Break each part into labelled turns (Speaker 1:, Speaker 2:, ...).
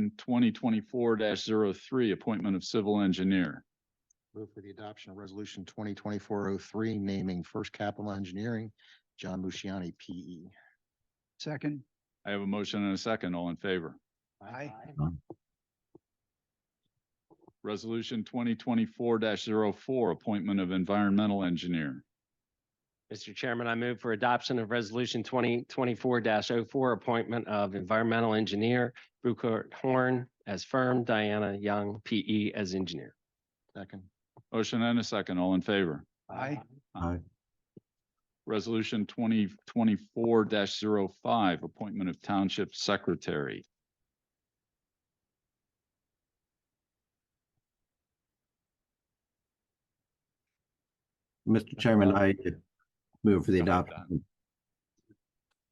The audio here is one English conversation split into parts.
Speaker 1: resolution twenty twenty-four 3 appointment of civil engineer.
Speaker 2: Move for the adoption of resolution twenty twenty-four oh three, naming First Capital Engineering, John Musciani, P E.
Speaker 3: Second.
Speaker 1: I have a motion and a second. All in favor?
Speaker 3: Aye.
Speaker 1: Resolution twenty twenty-four 4 appointment of environmental engineer.
Speaker 4: Mr. Chairman, I move for adoption of Resolution twenty twenty-four oh 4 appointment of environmental engineer Bruckert Horn as firm, Diana Young, P E as engineer.
Speaker 2: Second.
Speaker 1: Motion and a second. All in favor?
Speaker 3: Aye.
Speaker 1: Resolution twenty twenty-four 5 appointment of township secretary.
Speaker 5: Mr. Chairman, I move for the
Speaker 1: Go ahead,
Speaker 5: adoption.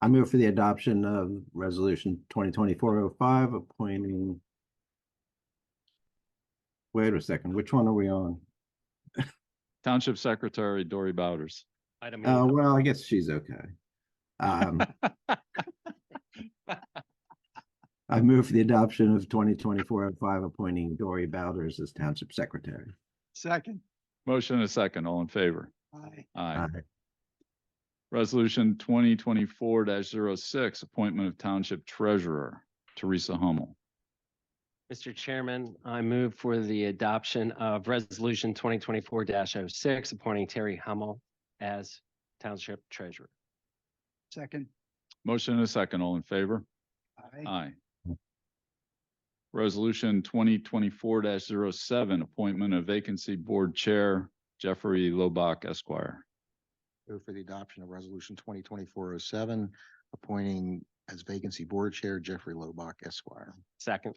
Speaker 5: I move for the adoption of resolution twenty twenty-four oh five appointing. Wait a second, which one are we on?
Speaker 1: Township Secretary Dory Bowders.
Speaker 4: Item E.
Speaker 5: Uh, well, I guess she's okay. Um. I move for the adoption of twenty twenty-four oh five appointing Dory Bowders as township secretary.
Speaker 3: Second.
Speaker 1: Motion and a second. All in favor?
Speaker 3: Aye.
Speaker 1: Aye.
Speaker 5: Aye.
Speaker 1: Resolution twenty twenty-four 6 appointment of township treasurer Teresa Hummel.
Speaker 4: Mr. Chairman, I move for the adoption of Resolution twenty twenty-four 6 appointing Terry Hummel as township treasurer.
Speaker 3: Second.
Speaker 1: Motion and a second. All in favor? Aye. Resolution twenty twenty-four 7 appointment of vacancy board chair Jeffrey Lobach Esquire.
Speaker 2: Move for the adoption of resolution twenty twenty-four oh seven, appointing as vacancy board chair Jeffrey Lobach Esquire.
Speaker 4: Second.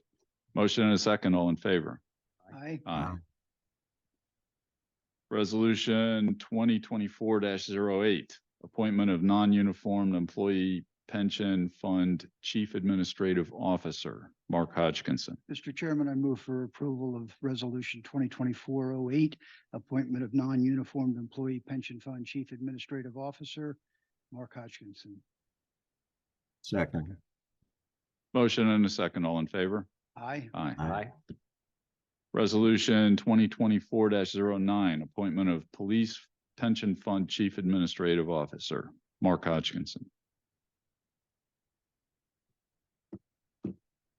Speaker 1: Motion and a second. All in favor?
Speaker 3: Aye.
Speaker 1: Aye.
Speaker 5: Aye.
Speaker 1: Resolution twenty twenty-four 8 appointment of non-uniformed employee pension fund chief administrative officer, Mark Hodgkinson.
Speaker 3: Mr. Chairman, I move for approval of Resolution twenty twenty-four oh eight, appointment of non-uniformed employee pension fund chief administrative officer, Mark Hodgkinson.
Speaker 5: Second,
Speaker 1: Motion and a second. All in favor?
Speaker 3: Aye.
Speaker 1: Aye.
Speaker 5: Aye.
Speaker 1: Resolution twenty twenty-four 9 appointment of police pension fund chief administrative officer, Mark Hodgkinson.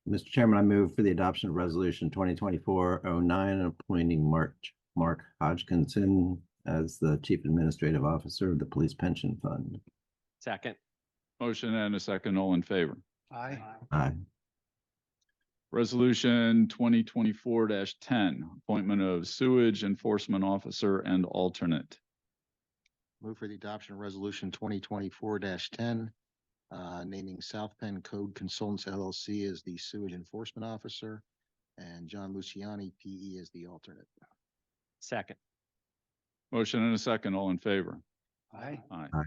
Speaker 5: Mr. Chairman, I move for the adoption of resolution twenty twenty-four oh nine, appointing Mark, Mark Hodgkinson as the Chief Administrative Officer of the Police Pension Fund.
Speaker 4: Second.
Speaker 1: Motion and a second. All in favor?
Speaker 3: Aye.
Speaker 5: Aye.
Speaker 1: Resolution twenty twenty-four ten, appointment of sewage enforcement officer and alternate.
Speaker 2: Move for the adoption of resolution twenty twenty-four ten, uh, naming South Penn Code Consultants LLC as the sewage enforcement officer and John Musciani, P E, as the alternate.
Speaker 4: Second.
Speaker 1: Motion and a second, all in favor.
Speaker 3: Aye.
Speaker 1: Aye.
Speaker 5: Aye.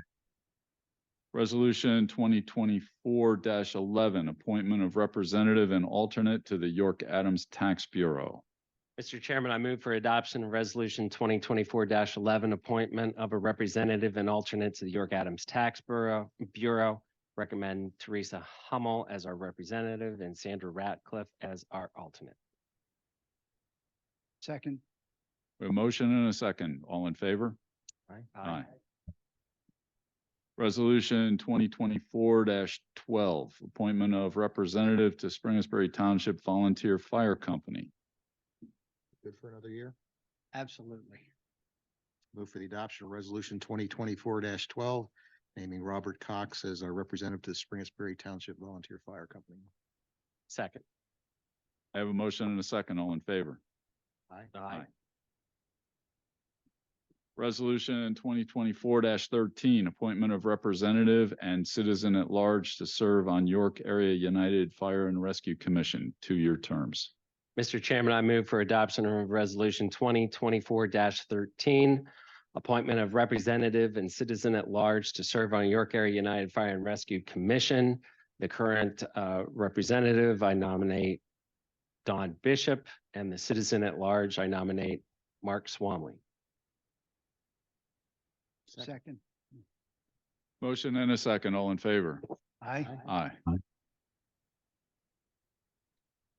Speaker 1: Resolution twenty twenty-four eleven, appointment of representative and alternate to the York Adams Tax Bureau.
Speaker 4: Mr. Chairman, I move for adoption of Resolution twenty twenty-four eleven, appointment of a representative and alternate to the York Adams Tax Bureau, Bureau. Recommend Teresa Hummel as our representative and Sandra Ratcliffe as our alternate.
Speaker 3: Second.
Speaker 1: We have a motion and a second, all in favor. Aye. Resolution twenty twenty-four twelve, appointment of representative to Springersbury Township Volunteer Fire Company.
Speaker 2: Good for another year.
Speaker 3: Absolutely.
Speaker 2: Move for the adoption of resolution twenty twenty-four twelve, naming Robert Cox as our representative to the Springersbury Township Volunteer Fire Company.
Speaker 4: Second.
Speaker 1: I have a motion and a second, all in favor.
Speaker 4: Aye.
Speaker 1: Resolution twenty twenty-four thirteen, appointment of representative and citizen at large to serve on York Area United Fire and Rescue Commission, two-year terms.
Speaker 4: Mr. Chairman, I move for adoption of Resolution twenty twenty-four thirteen. Appointment of representative and citizen at large to serve on York Area United Fire and Rescue Commission. The current uh, representative, I nominate Don Bishop, and the citizen at large, I nominate Mark Swamley.
Speaker 3: Second.
Speaker 1: Motion and a second, all in favor.
Speaker 3: Aye.
Speaker 1: Aye.
Speaker 5: Aye.